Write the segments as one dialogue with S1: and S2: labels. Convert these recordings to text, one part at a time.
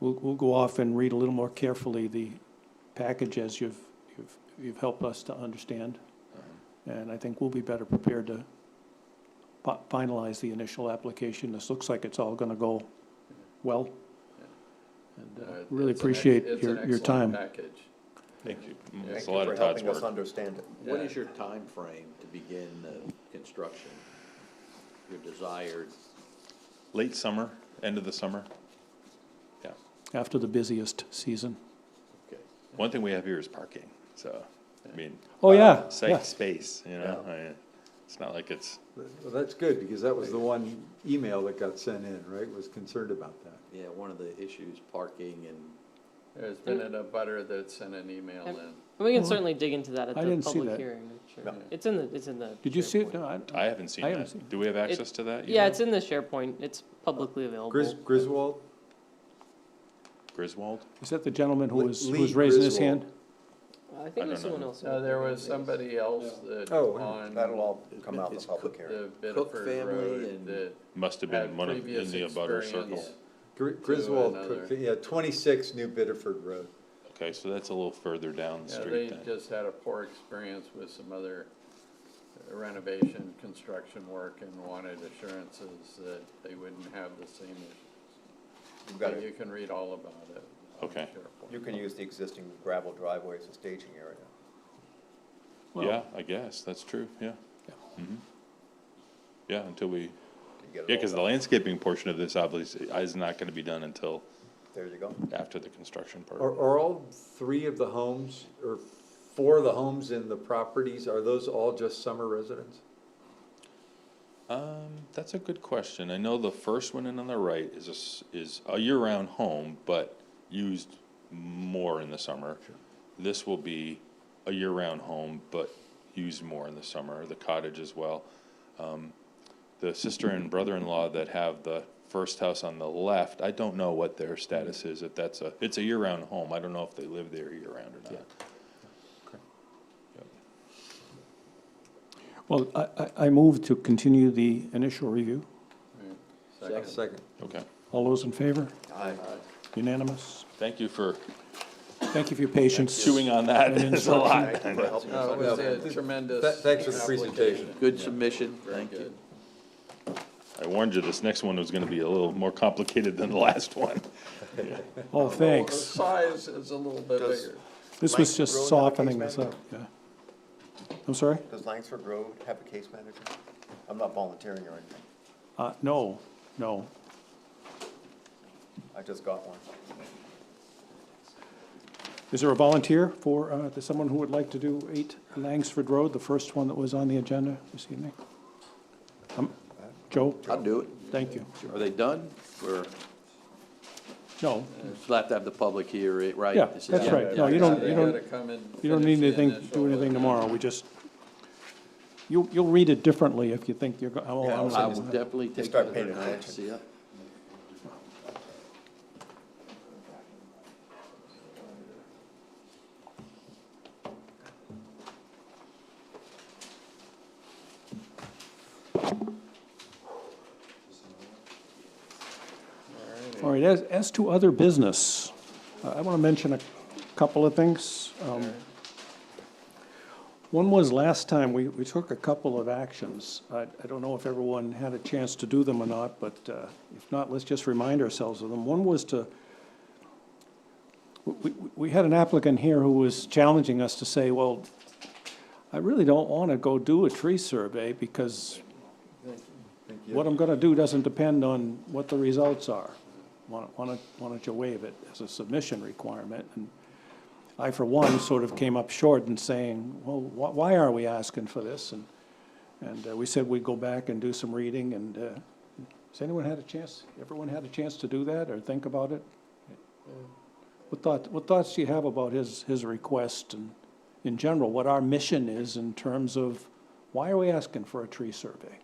S1: we'll, we'll go off and read a little more carefully the package as you've, you've, you've helped us to understand.
S2: Uh-huh.
S1: And I think we'll be better prepared to fi- finalize the initial application. This looks like it's all gonna go well. And,
S2: Uh,
S1: uh,
S2: it's
S1: really
S2: an ex-
S1: appreciate
S2: it's an
S1: your, your
S2: excellent
S1: time.
S2: package.
S3: Thank you.
S2: Yeah.
S3: It's
S4: Thank
S3: a
S4: you
S3: lot
S4: for
S3: of Todd's
S4: helping us
S3: work.
S4: understand it.
S5: What
S2: Yeah.
S5: is your time frame to begin the construction? Your desired,
S3: Late summer, end of the summer. Yeah.
S1: After the busiest season.
S5: okay.
S3: One thing we have here is parking, so, I mean.
S1: Oh, yeah, yeah.
S3: Safe space, you know,
S4: Yeah.
S3: I- it's not like it's,
S6: Well, that's good, because that was the one email that got sent in, right, was concerned about that.
S5: Yeah, one of the issues, parking and,
S2: There's been an abutter that sent an email in.
S7: We can certainly dig into that at
S1: I
S7: the
S1: didn't see
S7: public
S1: that.
S7: hearing. I'm sure. It's in the, it's in the.
S1: Did you see it?
S7: SharePoint.
S1: No, I,
S3: I haven't seen
S1: I haven't seen
S3: that. Do we have access to that?
S7: Yeah,
S3: yet?
S7: it's in the SharePoint. It's publicly available.
S6: Gris- Griswold?
S3: Griswold?
S1: is that the gentleman who
S6: Lee-
S1: was, who
S6: Lee
S1: was raising his
S6: Griswold.
S1: hand?
S7: I
S3: I
S7: think there's
S3: don't know.
S7: someone else.
S2: No, there was somebody else that
S6: Oh,
S2: on
S4: That'll all come out in
S5: It's
S4: the public
S6: uh,
S4: hearing.
S2: the
S5: Cook
S2: Biddeford
S5: family
S2: Road
S5: and-
S2: that
S3: Must have been
S2: had
S3: one of, in
S2: previous
S3: the abutter circle.
S2: experience.
S6: Gr- Griswold,
S2: another.
S6: Cook- yeah, twenty-six New Bedford Road.
S3: Okay, so that's a little further down the
S2: Yeah,
S3: street
S2: they
S3: then.
S2: just had a poor experience with some other renovation, construction work and wanted assurances that they wouldn't have the same issues.
S4: You've got
S2: But you
S4: to,
S2: can read all about it. on
S3: Okay.
S2: SharePoint.
S4: you can use the existing gravel driveway as a staging area.
S1: Well-
S3: Yeah, I guess, that's true, yeah. Mhm. Yeah, until we,
S4: to get it
S3: yeah,
S4: all
S3: because the
S4: done.
S3: landscaping portion of this obviously is not gonna be done until
S4: There you go.
S3: after the construction
S6: Are,
S3: part.
S6: are all three of the homes, or four of the homes in the properties, are those all just summer residents?
S3: Um, that's a good question. I know the first one in on the right is a, s- is a year-round home, but used more in the summer. This will be a year-round home, but used more in the summer, the cottage as well. Um, The sister and brother-in-law that have the first house on the left, I don't know what their status is, if that's a, it's a year-round home. I don't know if they live there year-round or not.
S1: Well, I, I, I move to continue the initial review.
S2: Right. Second.
S6: Second.
S3: Okay,
S1: All those in favor?
S4: Aye.
S1: Unanimous?
S3: thank you for
S1: Thank you for your patience.
S3: chewing on that. It's a lot.
S4: Thank you for helping us
S2: No, it was
S4: understand.
S2: a
S6: Oh, Th-
S2: tremendous.
S6: thanks for the presentation.
S2: application.
S5: good submission,
S2: Very
S5: thank you.
S2: good.
S3: I warned you, this next one was gonna be a little more complicated than the last one.
S1: Oh,
S2: Well, The
S1: thanks.
S2: size is a little bit
S4: Does-
S2: bigger.
S1: This was
S4: Mike
S1: just
S4: Rowan have a case
S1: softening this up,
S4: manager?
S1: yeah. I'm sorry?
S4: Does Langsford Road have a case manager? I'm not volunteering or anything.
S1: Uh, no, no.
S4: I just got one.
S1: Is there a volunteer for, uh, there's someone who would like to do eight Langsford Road, the first one that was on the agenda this evening? Um, Joe,
S5: I'll do it.
S1: thank you.
S5: Are they done? We're,
S1: No,
S5: just have to have the public here, right?
S1: Yeah,
S5: This is-
S1: that's right. No,
S2: Yeah,
S1: you don't,
S2: they
S1: you don't,
S2: gotta come and
S1: you don't
S2: finish
S1: need
S2: the
S1: anything,
S2: initial
S1: do anything
S2: and-
S1: tomorrow. We just, you, you'll read it differently if you think you're, go- oh,
S4: Yeah,
S1: I'm
S5: I
S1: not-
S5: will definitely take
S4: start
S5: that
S4: paying
S5: and I'll
S4: attention.
S5: see ya.
S1: All right, as, as to other business, uh, I want to mention a couple of things. Um, One was last time, we, we took a couple of actions. I, I don't know if everyone had a chance to do them or not, but uh, if not, let's just remind ourselves of them. One was to, we, we- we had an applicant here who was challenging us to say, well, I really don't want to go do a tree survey because
S6: Thank you.
S1: what I'm gonna do doesn't depend on what the results are. Why, why don't, why don't you waive it as a submission requirement? And I, for one, sort of came up short in saying, well, wh- why are we asking for this? And, and uh, we said we'd go back and do some reading, and, uh, has anyone had a chance, everyone had a chance to do that or think about it? What thought, what thoughts do you have about his, his request and, in general, what our mission is in terms of, why are we asking for a tree survey?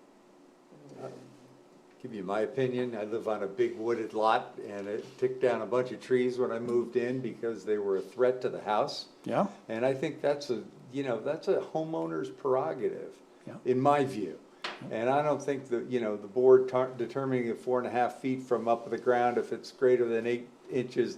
S6: Give you my opinion, I live on a big wooded lot, and it took down a bunch of trees when I moved in because they were a threat to the house.
S1: Yeah?
S6: And I think that's a, you know, that's a homeowner's prerogative,
S1: Yeah.
S6: in my view. And I don't think that, you know, the board tar- determining the four and a half feet from up the ground, if it's greater than eight,
S4: inches